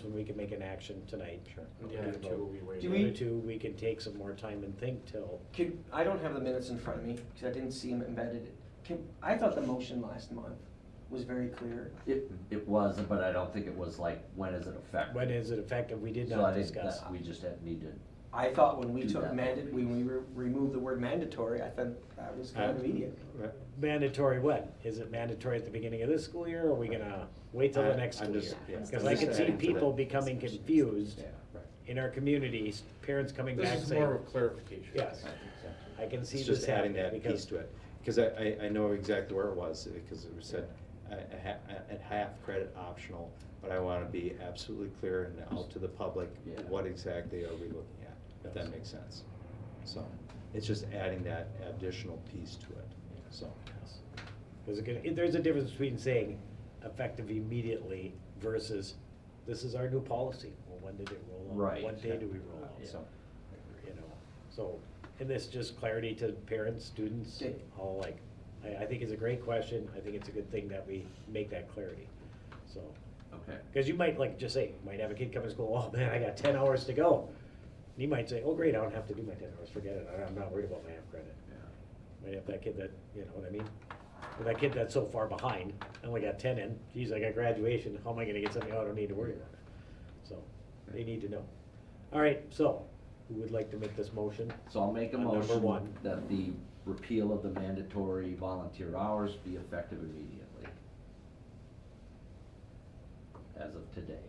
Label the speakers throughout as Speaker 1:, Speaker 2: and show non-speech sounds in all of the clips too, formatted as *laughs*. Speaker 1: So we can make an action tonight. Sure.
Speaker 2: The other two will be waived.
Speaker 3: Do
Speaker 1: The other
Speaker 3: we-
Speaker 1: two, we can take some more time and think till,
Speaker 3: Could, I don't have the minutes in front of me, because I didn't see them embedded. Can, I thought the motion last month was very clear.
Speaker 4: It, it was, but I don't think it was like, when is it effective?
Speaker 1: when is it effective? We did
Speaker 4: So I
Speaker 1: not
Speaker 4: think
Speaker 1: discuss.
Speaker 4: that We just had, need to,
Speaker 3: I thought when we
Speaker 4: Do
Speaker 3: took
Speaker 4: that.
Speaker 3: mandate, when we re- removed the word mandatory, I thought that was kind of immediate.
Speaker 1: Mandatory when? Is it mandatory at the beginning of this school year, or are we gonna wait till the
Speaker 2: I-
Speaker 1: next
Speaker 2: I'm
Speaker 1: school
Speaker 2: just-
Speaker 1: year?
Speaker 2: yeah.
Speaker 1: Because
Speaker 2: I'm
Speaker 1: I
Speaker 2: just
Speaker 1: can see
Speaker 2: adding to that.
Speaker 1: people becoming confused
Speaker 3: Yeah.
Speaker 1: in our communities, parents coming back
Speaker 2: This is more
Speaker 1: saying,
Speaker 2: of a clarification.
Speaker 1: Yes.
Speaker 2: Yeah.
Speaker 1: I can see
Speaker 5: It's
Speaker 1: this
Speaker 5: just adding
Speaker 1: happening.
Speaker 5: that
Speaker 1: because
Speaker 5: piece to it, because I, I, I know exactly where it was, because it was said, a, a ha- a- a half credit optional, but I wanna be absolutely clear and out to the public,
Speaker 4: Yeah.
Speaker 5: what exactly are we looking at, if that makes sense. So, it's just adding that additional piece to it, so.
Speaker 1: There's a, good- there's a difference between saying effective immediately versus this is our new policy. Well, when did it roll out?
Speaker 4: Right.
Speaker 1: What day do we roll out?
Speaker 4: Yeah.
Speaker 1: So, you know, so, and this just clarity to parents, students,
Speaker 3: Yeah.
Speaker 1: all like, I, I think it's a great question. I think it's a good thing that we make that clarity, so.
Speaker 4: okay.
Speaker 1: Cause you might like just say, you might have a kid come to school, oh man, I got ten hours to go. And he might say, oh great, I don't have to do my ten hours, forget it, I- I'm not worried about my half credit. Might have that kid that, you know what I mean? But that kid that's so far behind, I only got ten in, geez, I got graduation, how am I gonna get something, oh, I don't need to worry about it. So, they need to know. All right, so, who would like to make this motion?
Speaker 4: So I'll make a
Speaker 1: On number
Speaker 4: motion
Speaker 1: one.
Speaker 4: that the repeal of the mandatory volunteer hours be effective immediately. As of today.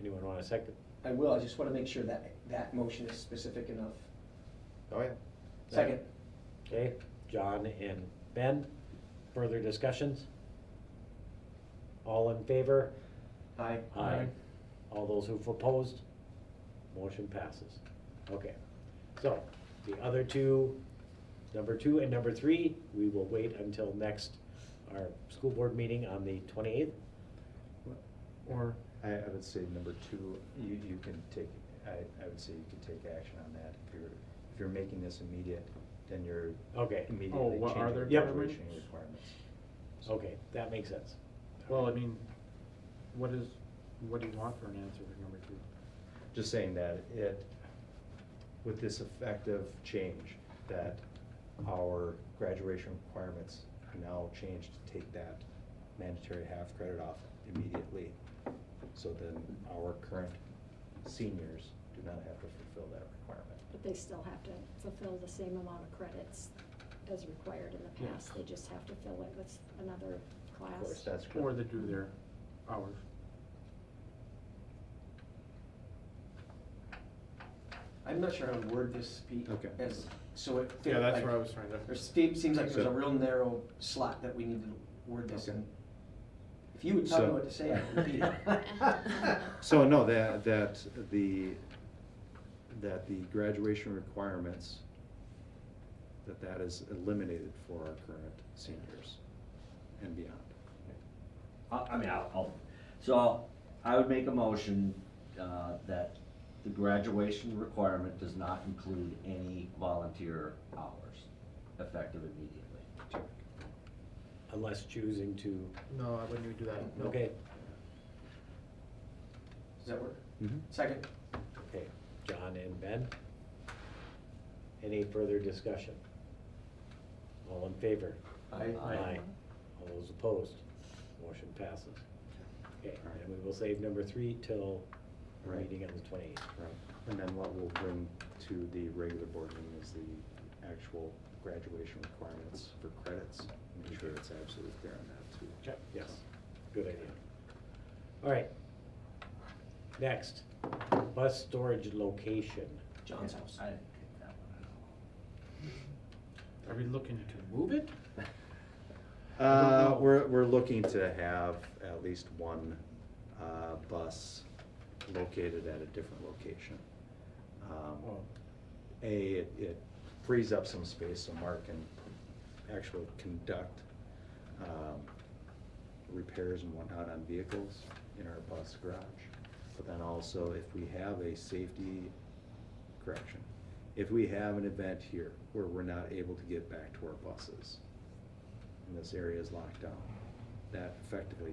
Speaker 1: Anyone want a second?
Speaker 3: I will, I just want to make sure that, that motion is specific enough.
Speaker 5: Oh, yeah.
Speaker 3: Second,
Speaker 1: Okay, John and Ben, further discussions? All in favor?
Speaker 3: aye.
Speaker 1: Aye. All those who've opposed, motion passes. Okay, so the other two, number two and number three, we will wait until next, our school board meeting on the twenty-eighth.
Speaker 2: Or,
Speaker 5: I, I would say number two, you, you can take, I, I would say you can take action on that, if you're, if you're making this immediate, then you're
Speaker 1: Okay,
Speaker 5: immediately
Speaker 2: Oh, what are
Speaker 5: changing
Speaker 2: their
Speaker 5: the graduation
Speaker 2: requirements?
Speaker 5: requirements.
Speaker 1: okay, that makes sense.
Speaker 2: well, I mean, what is, what do you want for an answer for number two?
Speaker 5: just saying that it, with this effective change, that our graduation requirements are now changed to take that mandatory half credit off immediately. So then our current seniors do not have to fulfill that requirement.
Speaker 6: But they still have to fulfill the same amount of credits as required in the
Speaker 2: Yeah.
Speaker 6: past. They just have to fill it with another
Speaker 5: Of course,
Speaker 6: class.
Speaker 5: that's
Speaker 2: Or
Speaker 5: correct.
Speaker 2: they do their hours.
Speaker 3: I'm not sure how to word this, Pete.
Speaker 5: Okay.
Speaker 3: As, so it. fit,
Speaker 2: Yeah, that's
Speaker 3: like-
Speaker 2: where I was trying to.
Speaker 3: There seems, seems like there's a
Speaker 5: So-
Speaker 3: real narrow slot that we need to word this
Speaker 5: Okay.
Speaker 3: in. If you would tell me
Speaker 5: So-
Speaker 3: what to say, I would be. *laughs*
Speaker 4: *laughs*
Speaker 5: So, no, that, that the, that the graduation requirements, that that is eliminated for our current seniors and beyond.
Speaker 4: I, I mean, I'll, I'll, so I would make a motion, uh, that the graduation requirement does not include any volunteer hours, effective immediately.
Speaker 1: Unless choosing to,
Speaker 2: No, I wouldn't even do that. No.
Speaker 1: okay,
Speaker 3: Does that work? Second,
Speaker 1: okay, John and Ben. Any further discussion? All in favor?
Speaker 3: aye.
Speaker 4: Aye.
Speaker 1: All those opposed, motion passes. Okay, and we will save number three till our
Speaker 5: Right.
Speaker 1: meeting on the twenty-eighth.
Speaker 5: Right, and then what we'll bring to the regular board meeting is the actual graduation requirements for credits. Make sure it's absolutely clear on that too.
Speaker 1: Yes, good idea. All right. Next, bus storage location.
Speaker 3: John's house.
Speaker 4: I didn't get that one
Speaker 2: Are we looking to move it?
Speaker 5: Uh, we're, we're looking to have at least one, uh, bus located at a different location. Um,
Speaker 2: Well,
Speaker 5: A, it- it frees up some space so Mark can actually conduct um, repairs and whatnot on vehicles in our bus garage. But then also, if we have a safety, correction, if we have an event here where we're not able to get back to our buses, and this area is locked down, that effectively